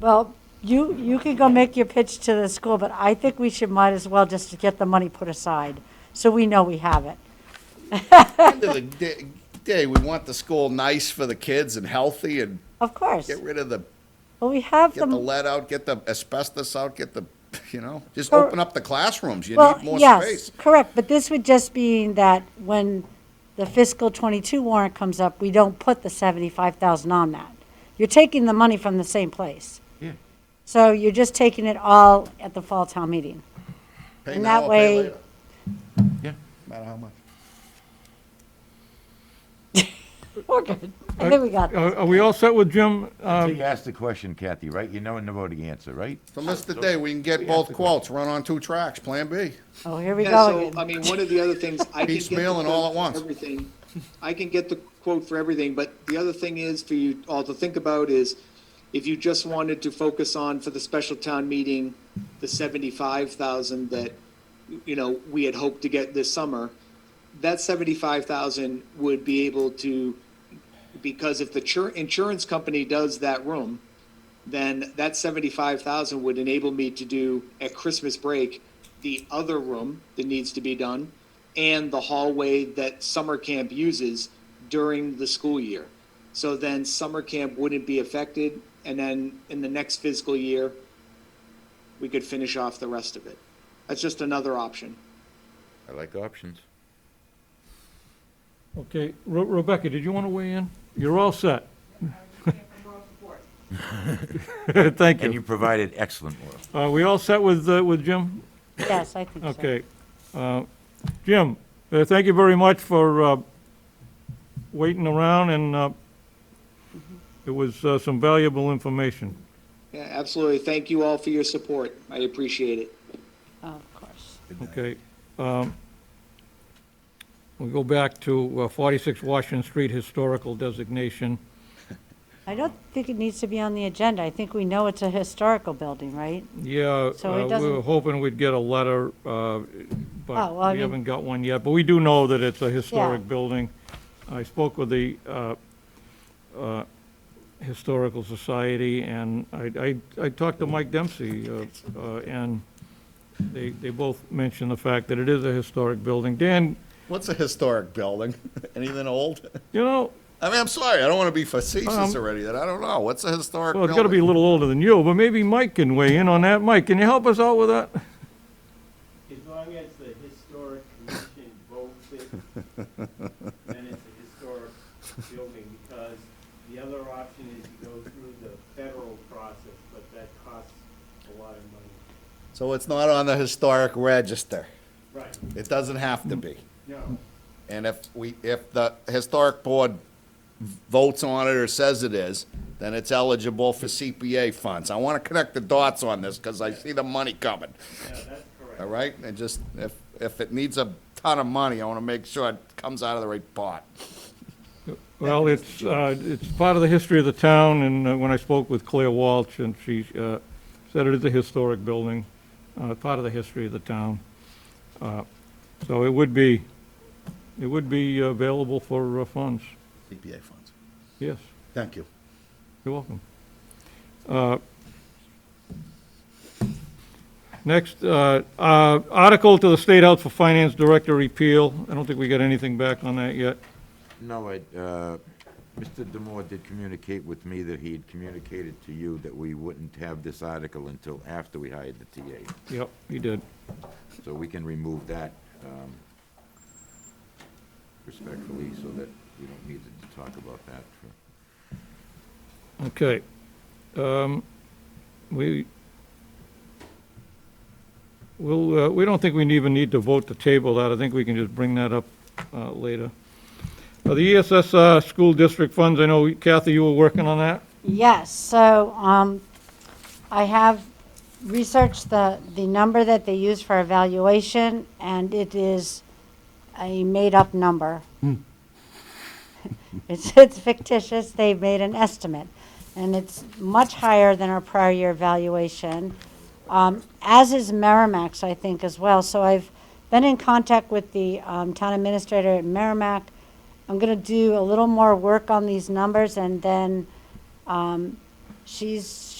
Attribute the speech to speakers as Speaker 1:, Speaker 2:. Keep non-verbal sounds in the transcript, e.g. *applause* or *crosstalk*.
Speaker 1: Well, you, you can go make your pitch to the school, but I think we should might as well just get the money put aside, so we know we have it.
Speaker 2: End of the da- day, we want the school nice for the kids and healthy and
Speaker 1: Of course.
Speaker 2: get rid of the,
Speaker 1: Well, we have
Speaker 2: get the
Speaker 1: the,
Speaker 2: lead out, get the asbestos out, get the, you know, just
Speaker 1: Cor-
Speaker 2: open up the classrooms. You
Speaker 1: well,
Speaker 2: need more
Speaker 1: yes,
Speaker 2: space.
Speaker 1: correct, but this would just mean that when the fiscal twenty-two warrant comes up, we don't put the seventy-five thousand on that. You're taking the money from the same place.
Speaker 2: Yeah.
Speaker 1: So you're just taking it all at the fall town meeting.
Speaker 2: Pay
Speaker 1: and
Speaker 2: now
Speaker 1: that
Speaker 2: or pay
Speaker 1: way-
Speaker 2: later,
Speaker 3: Yeah.
Speaker 2: no matter how much.
Speaker 1: We're good. I think we got it.
Speaker 4: Are are we all set with Jim?
Speaker 3: So
Speaker 4: Um,
Speaker 3: you asked the question, Kathy, right? You know and know the answer, right?
Speaker 2: So list the day, we can get both quotes, run on two tracks, Plan B.
Speaker 1: Oh, here we
Speaker 5: Yeah,
Speaker 1: go
Speaker 5: so,
Speaker 1: again.
Speaker 5: I mean, one of the other things, I can get the
Speaker 2: Piecemeal and all at
Speaker 5: quote
Speaker 2: once.
Speaker 5: for everything. I can get the quote for everything, but the other thing is for you all to think about is if you just wanted to focus on for the special town meeting, the seventy-five thousand that, you know, we had hoped to get this summer, that seventy-five thousand would be able to, because if the chur- insurance company does that room, then that seventy-five thousand would enable me to do at Christmas break the other room that needs to be done and the hallway that summer camp uses during the school year. So then summer camp wouldn't be affected, and then in the next fiscal year, we could finish off the rest of it. That's just another option.
Speaker 3: I like options.
Speaker 4: Okay, Re- Rebecca, did you want to weigh in? You're all set. *laughs* Thank
Speaker 3: And you
Speaker 4: you.
Speaker 3: provided excellent work.
Speaker 4: Are we all set with, uh, with Jim?
Speaker 1: Yes, I think so.
Speaker 4: Okay. Uh, Jim, uh, thank you very much for uh, waiting around, and uh, it was uh, some valuable information.
Speaker 5: Yeah, absolutely. Thank you all for your support. I appreciate it.
Speaker 1: Oh, Of course.
Speaker 4: Okay. um, We go back to uh, 46 Washington Street Historical Designation.
Speaker 1: I don't think it needs to be on the agenda. I think we know it's a historical building, right?
Speaker 4: Yeah,
Speaker 1: So it
Speaker 4: uh, we were
Speaker 1: doesn't-
Speaker 4: hoping we'd get a letter, uh,
Speaker 1: Oh, well, I
Speaker 4: but we
Speaker 1: mean-
Speaker 4: haven't got one yet. But we do know that it's a
Speaker 1: Yeah.
Speaker 4: historic building. I spoke with the uh, uh, Historical Society, and I I I talked to Mike Dempsey, uh, uh, and they they both mentioned the fact that it is a historic building. Dan,
Speaker 2: What's a historic building? *laughs* Anything old?
Speaker 4: you know,
Speaker 2: I mean, I'm sorry, I don't want to be facetious
Speaker 4: Um,
Speaker 2: already, that I don't know. What's a historic
Speaker 4: well,
Speaker 2: building?
Speaker 4: it's got to be a little older than you, but maybe Mike can weigh in on that. Mike, can you help us out with that?
Speaker 6: As long as the historic commission votes it, then it's a historic building, because the other option is you go through the federal process, but that costs a lot of money.
Speaker 2: So it's not on the historic register.
Speaker 6: Right,
Speaker 2: It doesn't have to be.
Speaker 6: no,
Speaker 2: And if we, if the historic board votes on it or says it is, then it's eligible for CPA funds. I want to connect the dots on this because I see the money coming,
Speaker 6: no, that's correct.
Speaker 2: all right? And just, if, if it needs a ton of money, I want to make sure it comes out of the right pot.
Speaker 4: Well, it's, uh, it's part of the history of the town, and uh, when I spoke with Claire Walsh, and she uh, said it is a historic building, uh, part of the history of the town. Uh, So it would be, it would be available for uh, funds,
Speaker 2: CPA funds.
Speaker 4: yes,
Speaker 2: Thank you.
Speaker 4: you're welcome. Uh, Next, uh, uh, article to the State House for Finance Director repeal, I don't think we got anything back on that yet.
Speaker 3: No, I, uh, Mr. Demore did communicate with me that he had communicated to you that we wouldn't have this article until after we hired the TA.
Speaker 4: Yep, he did.
Speaker 3: So we can remove that um, respectfully so that we don't need to talk about that for
Speaker 4: Okay. Um, We, we'll, uh, we don't think we even need to vote to table that. I think we can just bring that up uh, later. Uh, The ESSR school district funds, I know Kathy, you were working on that?
Speaker 1: Yes, so um, I have researched the, the number that they use for evaluation, and it is a made-up number. *laughs* It's, it's fictitious, they made an estimate, and it's much higher than our prior year valuation, um, as is Merrimack's, I think, as well. So I've been in contact with the um, town administrator at Merrimack. I'm gonna do a little more work on these numbers, and then Um, she's